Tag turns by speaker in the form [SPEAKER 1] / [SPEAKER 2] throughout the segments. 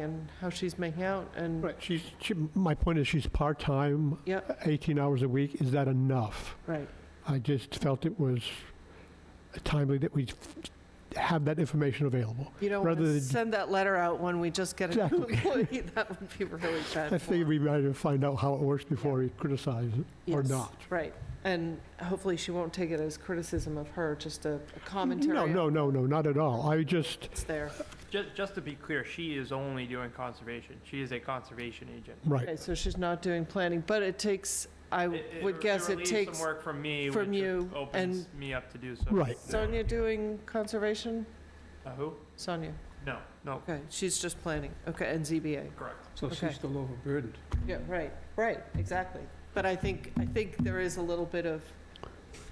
[SPEAKER 1] and how she's making out, and,
[SPEAKER 2] Right, she's, she, my point is she's part-time,
[SPEAKER 1] yeah,
[SPEAKER 2] 18 hours a week, is that enough?
[SPEAKER 1] right,
[SPEAKER 2] I just felt it was timely that we have that information available.
[SPEAKER 1] you don't
[SPEAKER 2] Rather
[SPEAKER 1] want to
[SPEAKER 2] than-
[SPEAKER 1] send that letter out when we just get a new employee, that would be really bad
[SPEAKER 2] I figured
[SPEAKER 1] form.
[SPEAKER 2] we better find out how it works before we criticize it, or
[SPEAKER 1] Yes,
[SPEAKER 2] not.
[SPEAKER 1] Right, and hopefully she won't take it as criticism of her, just a a commentary.
[SPEAKER 2] No,
[SPEAKER 1] on
[SPEAKER 2] no, no, no, not at all. I just,
[SPEAKER 1] It's there,
[SPEAKER 3] Just, just to be clear, she is only doing conservation. She is a conservation agent.
[SPEAKER 1] okay,
[SPEAKER 2] right,
[SPEAKER 1] so she's not doing planning, but it takes, I would guess it
[SPEAKER 3] relieves
[SPEAKER 1] takes,
[SPEAKER 3] some work from me,
[SPEAKER 1] from
[SPEAKER 3] which
[SPEAKER 1] you
[SPEAKER 3] opens me up to do so.
[SPEAKER 2] Right.
[SPEAKER 1] Sonia doing conservation?
[SPEAKER 3] Uh, who?
[SPEAKER 1] Sonia,
[SPEAKER 3] No, no,
[SPEAKER 1] okay, she's just planning, okay, and ZBA.
[SPEAKER 3] correct.
[SPEAKER 4] So
[SPEAKER 1] Okay.
[SPEAKER 4] she's still overburdened.
[SPEAKER 1] Yeah, right, right, exactly. But I think, I think there is a little bit of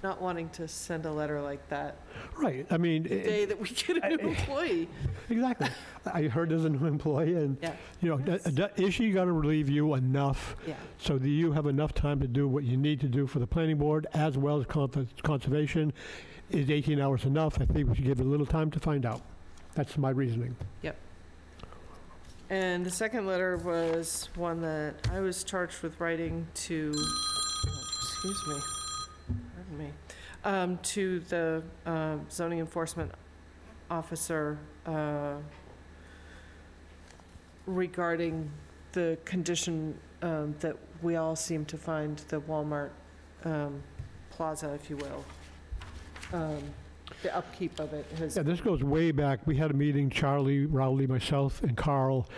[SPEAKER 1] not wanting to send a letter like that
[SPEAKER 2] right. I mean,
[SPEAKER 1] the day that we get a new employee.
[SPEAKER 2] exactly. I heard there's a new employee, and,
[SPEAKER 1] Yeah.
[SPEAKER 2] you know, d- d- is she going to relieve you enough
[SPEAKER 1] Yeah,
[SPEAKER 2] so that you have enough time to do what you need to do for the planning board as well as con- conservation. Is 18 hours enough? I think we should give it a little time to find out. That's my reasoning.
[SPEAKER 1] and the second letter was one that I was charged with writing to, oh, excuse me, pardon me, um, to the um, zoning enforcement officer uh, regarding the condition um, that we all seem to find the Walmart um, Plaza, if you will. Um, The upkeep of it has,
[SPEAKER 2] Yeah, this goes way back. We had a meeting, Charlie, Rowley, myself, and Carl.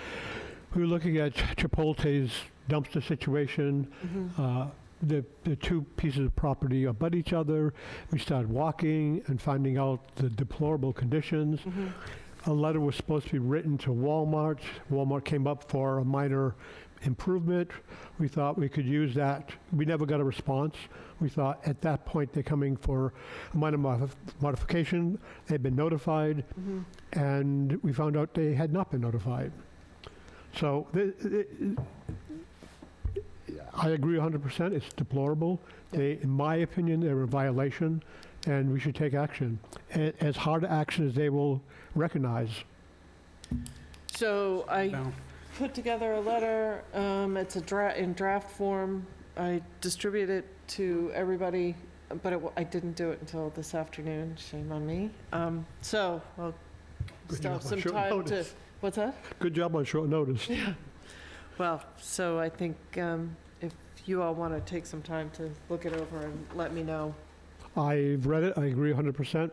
[SPEAKER 2] We were looking at Chipotle's dumpster situation.
[SPEAKER 1] Mhm.
[SPEAKER 2] Uh, The, the two pieces of property abut each other. We started walking and finding out the deplorable conditions.
[SPEAKER 1] Mhm.
[SPEAKER 2] a letter was supposed to be written to Walmart. Walmart came up for a minor improvement. We thought we could use that. We never got a response. We thought at that point they're coming for a minor modif- modification. They'd been notified,
[SPEAKER 1] Mhm.
[SPEAKER 2] and we found out they had not been notified. So th- th- I agree 100%. It's deplorable. They, in my opinion, they're a violation, and we should take action. A- As hard action as they will recognize.
[SPEAKER 1] so I
[SPEAKER 4] Now,
[SPEAKER 1] put together a letter, um, it's a dra, in draft form. I distribute it to everybody, but it, wa- I didn't do it until this afternoon, shame on me. Um, so, I'll
[SPEAKER 2] Good
[SPEAKER 1] still have
[SPEAKER 2] enough on
[SPEAKER 1] some
[SPEAKER 2] short
[SPEAKER 1] time to,
[SPEAKER 2] notice.
[SPEAKER 1] what's that?
[SPEAKER 2] Good job on short notice.
[SPEAKER 1] Well, so I think, um, if you all wanna take some time to look it over and let me know.
[SPEAKER 2] I've read it, I agree 100%.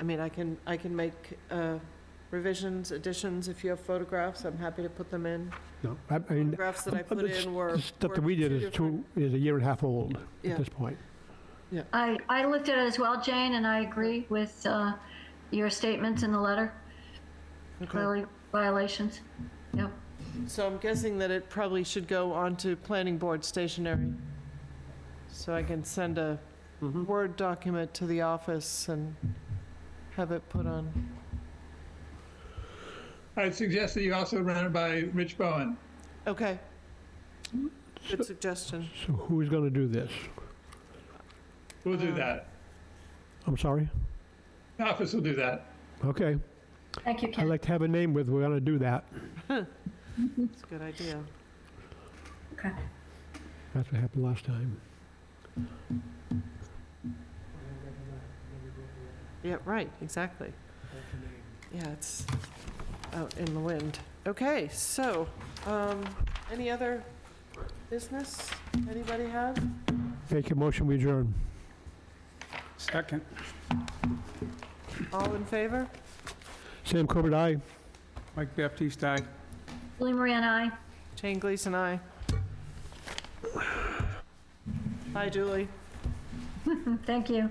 [SPEAKER 1] I mean, I can, I can make, uh, revisions, additions, if you have photographs, I'm happy to put them in.
[SPEAKER 2] No, I I mean,
[SPEAKER 1] Photographs that I
[SPEAKER 2] uh,
[SPEAKER 1] put
[SPEAKER 2] this-
[SPEAKER 1] in were.
[SPEAKER 2] the stuff
[SPEAKER 1] were
[SPEAKER 2] that we did is
[SPEAKER 1] different-
[SPEAKER 2] two, is a year and a half old
[SPEAKER 1] Yeah.
[SPEAKER 2] at this point.
[SPEAKER 5] I, I looked at it as well, Jane, and I agree with uh, your statements in the letter,
[SPEAKER 1] Okay.
[SPEAKER 5] clearly violations. Yep.
[SPEAKER 1] So I'm guessing that it probably should go on to planning board stationery. So I can send a Word document to the office and have it put on.
[SPEAKER 6] I'd suggest that you also run it by Rich Bowen.
[SPEAKER 1] Okay. Good suggestion.
[SPEAKER 2] So who's going to do this?
[SPEAKER 6] We'll
[SPEAKER 1] Uh.
[SPEAKER 6] do that.
[SPEAKER 2] I'm sorry?
[SPEAKER 6] The office will do that.
[SPEAKER 2] Okay,
[SPEAKER 5] Thank you,
[SPEAKER 2] I'd
[SPEAKER 5] Ken.
[SPEAKER 2] like to have a name with, we're going to do that.
[SPEAKER 1] It's a good idea.
[SPEAKER 5] Okay.
[SPEAKER 2] That's what happened last time.
[SPEAKER 1] Yeah, right, exactly. Yeah, it's out in the wind. Okay, so, um, any other business anybody have?
[SPEAKER 2] Make a motion, we adjourn.
[SPEAKER 4] Second.
[SPEAKER 1] All in favor?
[SPEAKER 2] Sam Corbett, aye.
[SPEAKER 4] Mike Baptiste, aye.
[SPEAKER 5] Julie Marie and I.
[SPEAKER 1] Jane Gleason, aye. Hi, Julie.
[SPEAKER 5] Thank you.